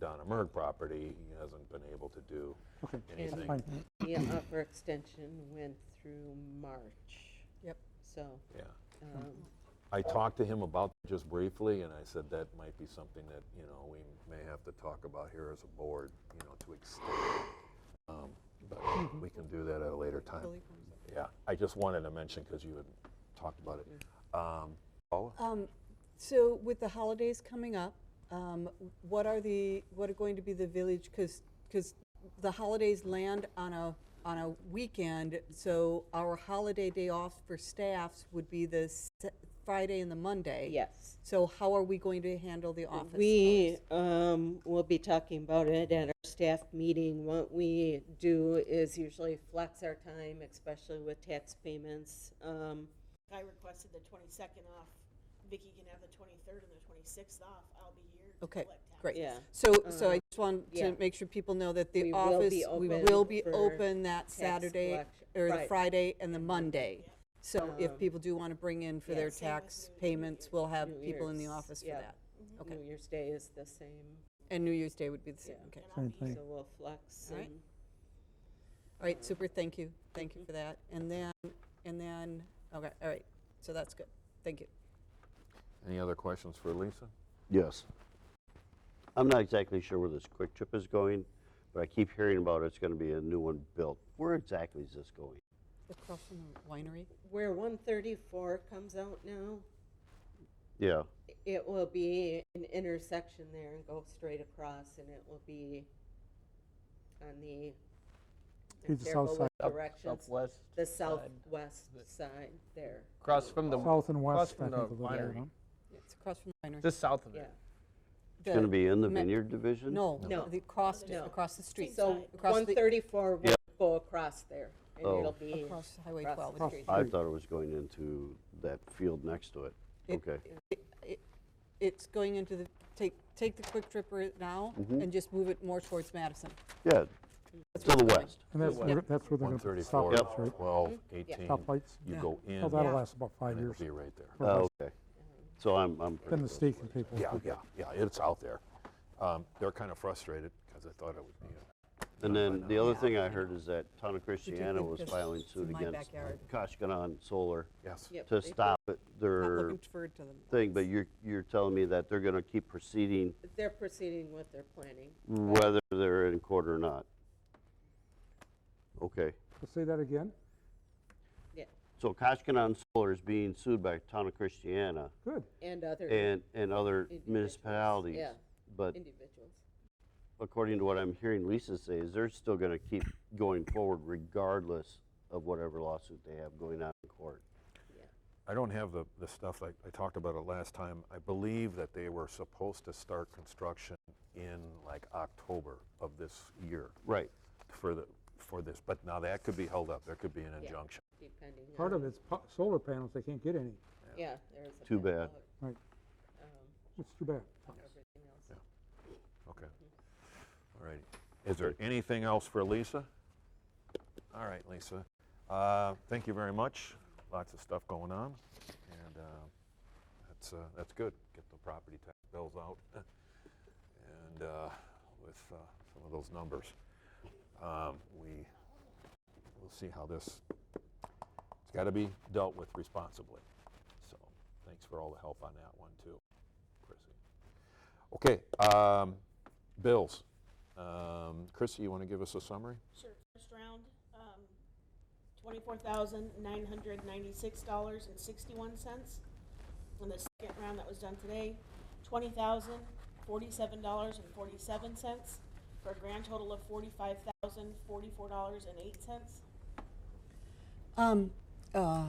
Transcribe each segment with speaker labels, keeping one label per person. Speaker 1: Donna Merg property, he hasn't been able to do
Speaker 2: Okay,
Speaker 1: anything.
Speaker 2: fine.
Speaker 3: The offer extension went through March.
Speaker 4: Yep.
Speaker 3: So,
Speaker 1: Yeah.
Speaker 3: um,
Speaker 1: I talked to him about it just briefly, and I said that might be something that, you know, we may have to talk about here as a board, you know, to extend. it. Um, But we can do that at a later time.
Speaker 4: Billy comes up.
Speaker 1: Yeah, I just wanted to mention, because you had talked about it. Um, Paula?
Speaker 4: Um, So with the holidays coming up, um, what are the, what are going to be the village, because, the holidays land on a, on a weekend, so our holiday day off for staffs would be the se- Friday and the Monday.
Speaker 3: yes.
Speaker 4: So how are we going to handle the office
Speaker 3: We
Speaker 4: hours?
Speaker 3: um, will be talking about it at our staff meeting. What we do is usually flex our time, especially with tax payments. Um,
Speaker 5: I requested the twenty-second off. Vicky can have the twenty-third and the twenty-sixth off. I'll be here. to
Speaker 4: Okay,
Speaker 5: collect tax.
Speaker 4: great.
Speaker 3: Yeah. Um,
Speaker 4: So, so I just want
Speaker 3: yeah.
Speaker 4: to make sure people know that
Speaker 3: We
Speaker 4: the
Speaker 3: will
Speaker 4: office,
Speaker 3: be
Speaker 4: we
Speaker 3: open
Speaker 4: will be
Speaker 3: for
Speaker 4: open that
Speaker 3: tax
Speaker 4: Saturday,
Speaker 3: collection-
Speaker 4: or the
Speaker 3: Right.
Speaker 4: Friday and the Monday. So if
Speaker 3: Um,
Speaker 4: people do want to bring in for their
Speaker 5: yeah, same with
Speaker 4: tax
Speaker 5: New
Speaker 4: payments, we'll have
Speaker 3: New
Speaker 4: people in the
Speaker 3: Year's,
Speaker 4: office for
Speaker 3: yeah.
Speaker 4: that. Okay.
Speaker 3: New Year's Day is the same,
Speaker 4: And New Year's Day would be the same,
Speaker 3: Yeah.
Speaker 4: okay. All
Speaker 5: And I'll
Speaker 2: Same
Speaker 5: be
Speaker 2: thing.
Speaker 3: so we'll flex
Speaker 4: All right.
Speaker 3: and-
Speaker 4: right, super, thank you, thank you
Speaker 3: Mm-hmm.
Speaker 4: for that. And then, and then, okay, all right, so that's good, thank you.
Speaker 1: Any other questions for Lisa?
Speaker 6: Yes. I'm not exactly sure where this quick trip is going, but I keep hearing about it's going to be a new one built. Where exactly is this going?
Speaker 4: Across from the winery?
Speaker 3: Where 134 comes out now,
Speaker 6: Yeah,
Speaker 3: it will be an intersection there and go straight across, and it will be on the.
Speaker 2: It's the
Speaker 3: careful
Speaker 2: south
Speaker 3: with
Speaker 7: Up-
Speaker 3: Directions,
Speaker 7: Southwest.
Speaker 3: the
Speaker 7: side.
Speaker 3: southwest side there,
Speaker 7: Across from the.
Speaker 2: South and
Speaker 7: across
Speaker 2: west, I
Speaker 7: from
Speaker 2: think, a
Speaker 7: the
Speaker 2: little bit.
Speaker 7: winery.
Speaker 2: huh?
Speaker 4: It's across from the winery.
Speaker 7: Just south of
Speaker 3: yeah.
Speaker 7: it.
Speaker 6: it's going to be in the
Speaker 4: Me-
Speaker 6: vineyard division?
Speaker 4: No,
Speaker 3: No.
Speaker 4: the across,
Speaker 3: No.
Speaker 4: across the street.
Speaker 3: So
Speaker 4: Across the-
Speaker 3: 134 will go across there, and
Speaker 6: Oh.
Speaker 3: it'll be,
Speaker 4: Across Highway
Speaker 3: across
Speaker 4: 12.
Speaker 3: the
Speaker 4: it's-
Speaker 3: street.
Speaker 6: I thought it was going into that field next to it.
Speaker 4: It-
Speaker 6: Okay.
Speaker 4: it- it- It's going into the, take, take the quick tripper now and just move it more towards Madison.
Speaker 6: Yeah,
Speaker 4: That's
Speaker 6: to the
Speaker 4: what's going.
Speaker 6: west.
Speaker 2: And that's, where- that's where they're going to put the
Speaker 1: 134,
Speaker 2: stoplights, right?
Speaker 1: 12, 18.
Speaker 2: Stoplights?
Speaker 1: You
Speaker 4: Yeah.
Speaker 1: go in.
Speaker 2: Oh, that'll
Speaker 1: and
Speaker 2: last about five
Speaker 1: it'll
Speaker 2: years.
Speaker 1: Be right there.
Speaker 2: Or less.
Speaker 6: Oh, okay. So I'm, I'm. pretty
Speaker 2: Then the
Speaker 6: close.
Speaker 2: state can pay for it.
Speaker 1: Yeah, yeah, yeah, it's out there. Um, They're kind of frustrated, because I thought it would be a
Speaker 6: And then the other
Speaker 4: Yeah.
Speaker 6: thing I heard is that Town of Christiana
Speaker 4: think
Speaker 6: was
Speaker 4: this
Speaker 6: filing
Speaker 4: is
Speaker 6: suit
Speaker 4: in my
Speaker 6: against
Speaker 4: backyard?
Speaker 6: Koshkanon Solar
Speaker 1: Yes.
Speaker 3: Yep,
Speaker 6: to
Speaker 3: they-
Speaker 6: stop it-
Speaker 4: Not
Speaker 6: their
Speaker 4: looking forward to them.
Speaker 6: thing, but you're, you're telling me that they're going to keep proceeding
Speaker 3: they're proceeding with their planning.
Speaker 6: whether they're in court or not. Okay,
Speaker 2: Say that again?
Speaker 3: Yeah,
Speaker 6: so Koshkanon Solar is being sued by Town of Christiana
Speaker 2: Good.
Speaker 3: and other
Speaker 6: and, and other
Speaker 3: Individuals,
Speaker 6: municipalities.
Speaker 3: yeah.
Speaker 6: But
Speaker 3: individuals.
Speaker 6: according to what I'm hearing Lisa say, is they're still going to keep going forward regardless of whatever lawsuit they have going on in court.
Speaker 1: I don't have the, the stuff, like, I talked about it last time. I believe that they were supposed to start construction in like October of this year
Speaker 6: Right,
Speaker 1: for the, for this, but now that could be held up. There could be an
Speaker 3: Yeah.
Speaker 1: injunction.
Speaker 3: depending on.
Speaker 2: Part of it's po- solar panels, they can't get any.
Speaker 3: Yeah, there's a.
Speaker 6: Too
Speaker 3: bit
Speaker 6: bad.
Speaker 3: of,
Speaker 2: Right,
Speaker 3: um,
Speaker 2: it's too bad.
Speaker 3: everything else.
Speaker 1: Okay. All right. Is there anything else for Lisa? All right, Lisa. Uh, Thank you very much. Lots of stuff going on, and uh, that's, uh, that's good. Get the property tax bills out and uh, with uh, some of those numbers. Um, We, we'll see how this, it's got to be dealt with responsibly. So thanks for all the help on that one, too, Chrissy. Okay, um, bills. Um, Chrissy, you want to give us a summary?
Speaker 5: Sure, first round, um, twenty-four thousand, nine hundred ninety-six dollars and sixty-one cents. And the second round that was done today, twenty thousand, forty-seven dollars and forty-seven cents, for a grand total of forty-five thousand, forty-four dollars and eight cents.
Speaker 4: Um, uh,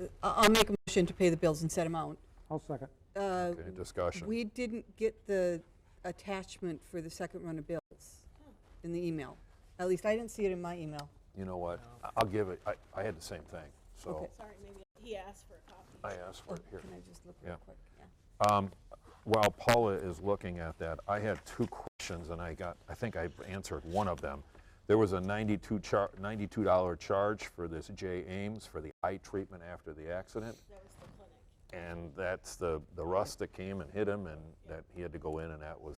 Speaker 4: I- I'll make a motion to pay the bills in set amount.
Speaker 2: I'll second.
Speaker 4: Uh,
Speaker 1: Okay, discussion.
Speaker 4: We didn't get the attachment for the second run of bills in the email. At least I didn't see it in my email.
Speaker 1: You know what? I- I'll give it, I, I had the same thing, so
Speaker 4: Okay.
Speaker 5: Sorry, maybe, he asked for a copy.
Speaker 1: I asked for
Speaker 4: Oh,
Speaker 1: it here.
Speaker 4: Can I just look real
Speaker 1: Yeah.
Speaker 4: quick? Yeah.
Speaker 1: Um, While Paula is looking at that, I had two questions and I got, I think I answered one of them. There was a 92 char, $92 charge for this J. Ames for the eye treatment after the accident.
Speaker 5: That was the clinic.
Speaker 1: And that's the, the rust that came and hit him and that he had to go in and that was